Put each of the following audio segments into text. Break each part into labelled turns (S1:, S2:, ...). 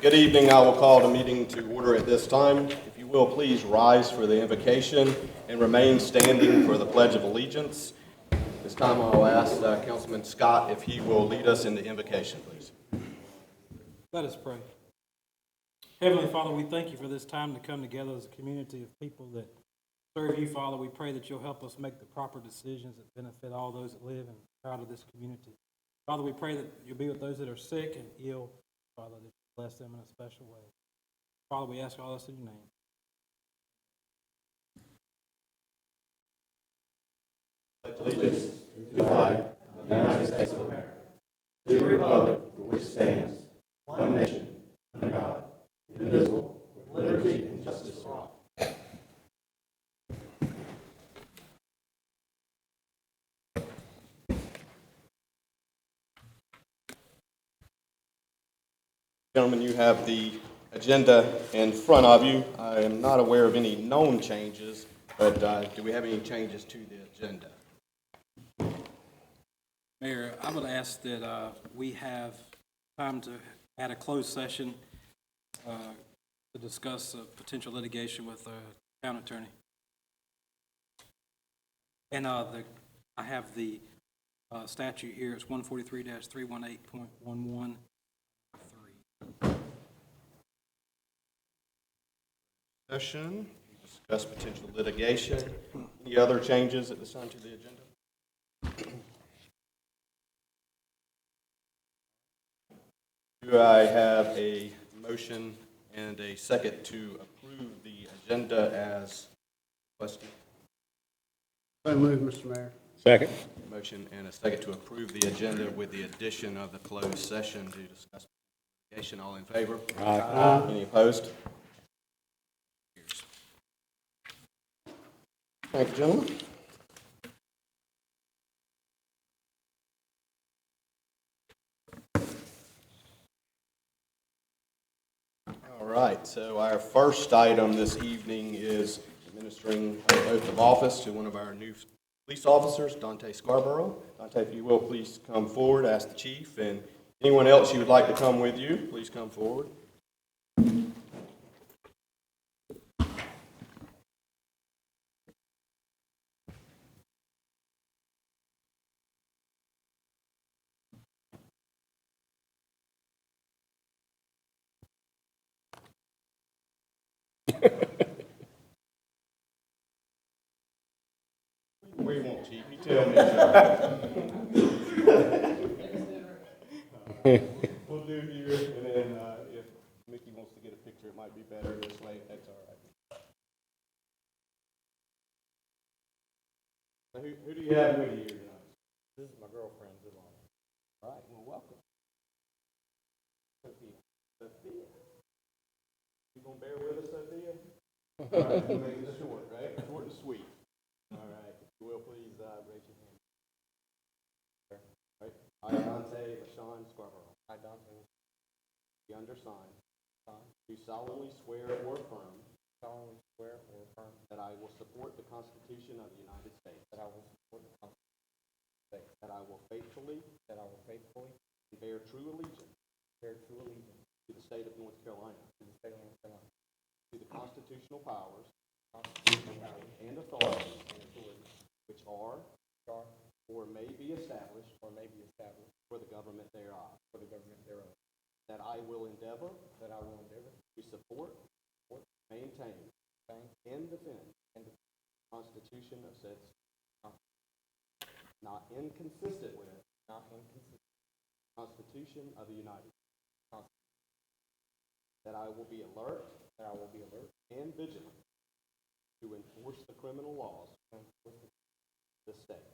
S1: Good evening. I will call the meeting to order at this time. If you will, please rise for the invocation and remain standing for the Pledge of Allegiance. This time I'll ask uh, Councilman Scott if he will lead us in the invocation, please.
S2: Let us pray. Heavenly Father, we thank you for this time to come together as a community of people that serve you, Father. We pray that you'll help us make the proper decisions that benefit all those that live and proud of this community. Father, we pray that you'll be with those that are sick and ill, Father, that you bless them in a special way. Father, we ask all this in your name.
S1: Gentlemen, you have the agenda in front of you. I am not aware of any known changes, but uh, do we have any changes to the agenda?
S2: Mayor, I would ask that uh, we have time to add a closed session uh, to discuss uh, potential litigation with the town attorney. And uh, the, I have the uh, statute here, it's 143-318.11.
S1: Session, discuss potential litigation. Any other changes at this time to the agenda? Do I have a motion and a second to approve the agenda as requested?
S3: So move, Mr. Mayor.
S4: Second.
S1: Motion and a second to approve the agenda with the addition of the closed session to discuss litigation. All in favor? Aye. Any opposed? Thank you, gentlemen. All right, so our first item this evening is administering an oath of office to one of our new police officers, Dante Scarborough. Dante, if you will, please come forward, ask the chief, and anyone else you would like to come with you, please come forward. Where you want, chief, you tell me. We'll do here, and then uh, if Mickey wants to get a picture, it might be better this way, if that's all right. Now, Who, who do you have with you tonight? This is my girlfriend, Delana. All right, well, welcome. Sophia. Sophia. You gonna bear with us, Sophia? All right, we'll make it short, right? Short and sweet. All right, if you will, please uh, raise your hand. Right. I, Dante LaShawn Scarborough. I, Dante. The undersigned. Do solemnly swear or affirm. Solemnly swear or affirm. That I will support the Constitution of the United States. That I will support the Constitution of the United States. That I will faithfully. That I will faithfully. And bear true allegiance. Bear true allegiance. To the state of North Carolina. To the state of North Carolina. To the constitutional powers. And authorities. Which are. Or may be established. Or may be established. For the government thereof. For the government thereof. That I will endeavor. That I will endeavor. To support. Maintain. And defend. And the Constitution of said. state, Not inconsistent with. Not inconsistent. Constitution of the United. States. That I will be alert. That I will be alert. And vigilant. To enforce the criminal laws. Of the state.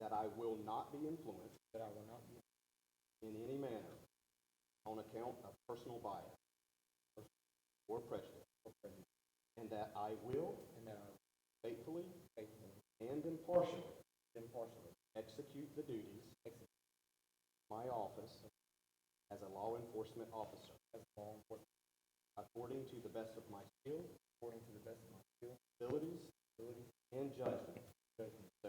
S1: That I will not be influenced. That I will not be. In any manner. On account of personal bias. Or prejudice. And that I will. And that I. Faithfully. Faithfully. And impartially. Impartially. Execute the duties. My office. As a law enforcement officer. As a law enforcement. According to the best of my skill. According to the best of my skill. Abilities. Abilities. And judgment. Judgment. So